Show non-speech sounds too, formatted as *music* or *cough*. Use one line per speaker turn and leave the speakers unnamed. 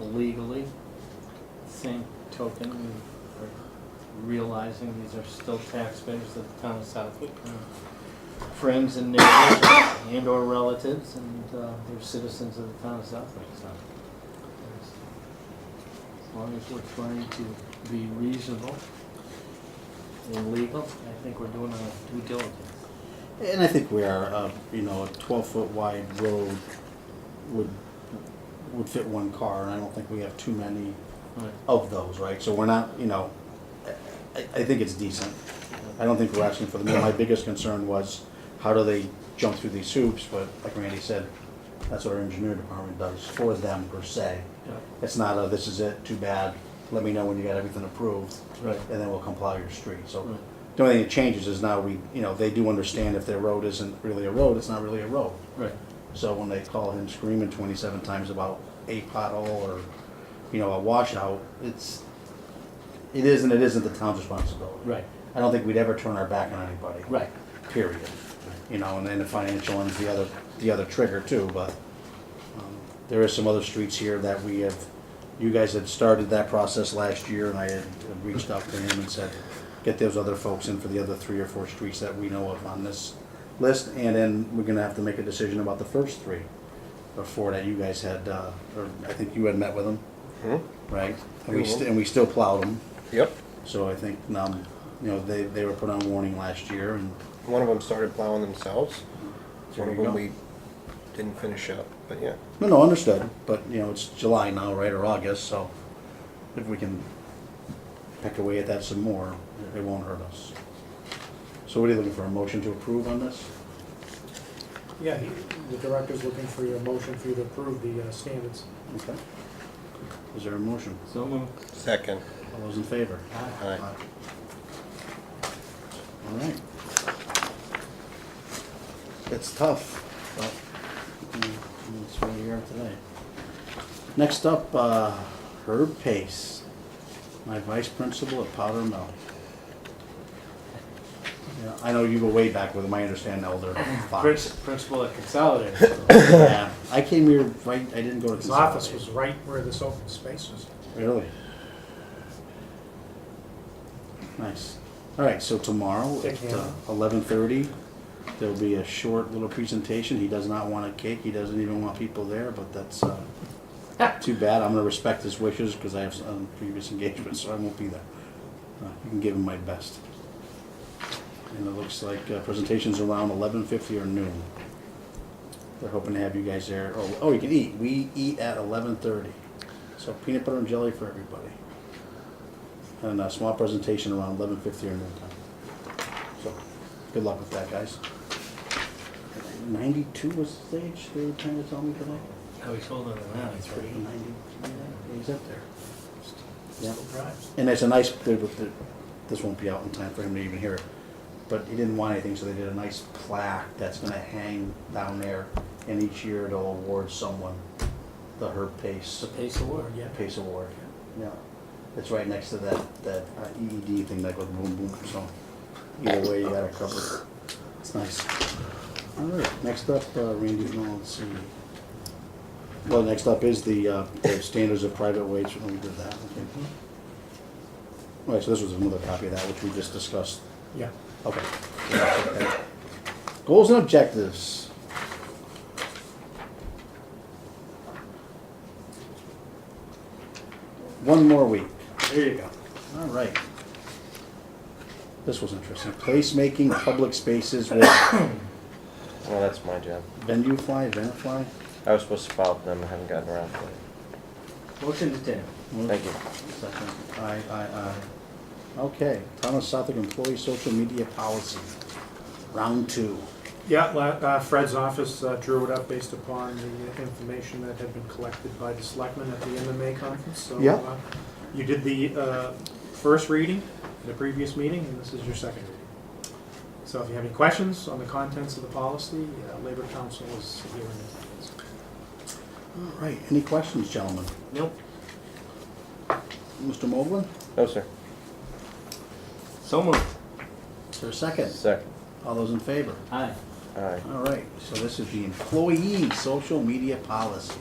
legally. Same token, we are realizing these are still taxpayers of the town of Southwick. uh, Friends and neighbors *coughs* and or relatives and uh, they're citizens of the town of Southwick, so. As long as we're trying to be reasonable and legal, I think we're doing our due diligence.
And I think we are, uh, you know, a twelve foot wide road would, would fit one car, and I don't think we have too many
Right.
of those, right? So we're not, you know, I, I think it's decent. I don't think we're asking for the moon. My biggest concern was, how do they jump through these hoops? But like Randy said, that's what our engineer department does for them per se.
Yeah.
It's not a, this is it, too bad, let me know when you got everything approved,
Right.
and then we'll comply with your street. So
Right.
the only thing that changes is now we, you know, they do understand if their road isn't really a road, it's not really a road.
Right.
So when they call him screaming twenty-seven times about a pothole or, you know, a washout, it's, it is and it isn't the town's responsibility.
Right.
I don't think we'd ever turn our back on anybody.
Right.
Period. You know, and then the financial one's the other, the other trigger too, but, um, there is some other streets here that we have, you guys had started that process last year and I had reached out to him and said, get those other folks in for the other three or four streets that we know of on this list, and then we're gonna have to make a decision about the first three or four that you guys had, uh, or I think you had met with them, Hmm? right? And we, st- and we still plowed them.
Yep.
So I think, um, you know, they, they were put on warning last year and,
One of them started plowing themselves.
There
One of
you
them
go.
we didn't finish up, but yeah.
no, no, understood, but, you know, it's July now, right, or August, so if we can peck away at that some more, it won't hurt us. So what are you looking for, a motion to approve on this?
Yeah, he- the director's looking for your motion for you to approve the uh, standards.
Okay. Is there a motion?
So moved.
Second.
All those in favor?
Aye.
All right. It's tough, but mm, that's where we are today. Next up, uh, Herb Pace, my vice principal at Powder Mill. Yeah, I know you go way back with him, I understand
*laughs*
Elder
Prince,
Fox.
principal at Consolidated. so-
Yeah, I came here, right, I didn't go to.
His office
Consolidated.
was right where this open space was.
Really? Nice. All right, so tomorrow
Dick
at uh,
Hanna.
eleven thirty, there'll be a short little presentation. He does not want a cake, he doesn't even want people there, but that's, uh, too bad. I'm gonna respect his wishes because I have some previous engagements, so I won't be there. Uh, You can give him my best. And it looks like uh, presentations around eleven fifty or noon. They're hoping to have you guys there. Oh, oh, you can eat. We eat at eleven thirty. So peanut butter and jelly for everybody. And a small presentation around eleven fifty or noon time. So, good luck with that, guys. Ninety-two was his age, they were trying to tell me today?
How he's older than that, he's pretty.
Ninety-three, yeah, he's up there. Yeah.
Still drives.
And it's a nice, they- they- this won't be out in time for him to even hear it, but he didn't want anything, so they did a nice plaque that's gonna hang down there. And each year they'll award someone the Herb Pace
The pace of work.
Yeah.
Pace Award. Yeah, it's right next to that, that uh, EED thing that goes boom, boom, so either way, you got it covered. It's nice. All right, next up, uh, Randy, no, let's see. Well, next up is the, uh, the standards of private wage, when we did that, okay. All right, so this was another copy of that, which we just discussed.
Yeah.
Okay. Goals and objectives. One more week. There you go. All right. This was interesting. Placemaking public spaces with
Well, that's my job.
venue fly, event fly.
I was supposed to follow up them, I haven't gotten around to it.
Motion to table.
Thank you.
Second. Aye, aye, aye. Okay, Town of Southwick Employee Social Media Policy, round two.
Yeah, la- uh, Fred's office uh, drew it up based upon the information that had been collected by the selectmen at the MMA conference. So,
Yeah.
uh, You did the uh, first reading, at the previous meeting, and this is your second reading. So if you have any questions on the contents of the policy, uh, Labor Council is here in attendance.
All right, any questions, gentlemen?
Nope.
Mr. Moblin?
No, sir.
So moved.
Is there a second?
Second.
All those in favor?
Aye.
Aye.
All right, so this is the employee social media policy.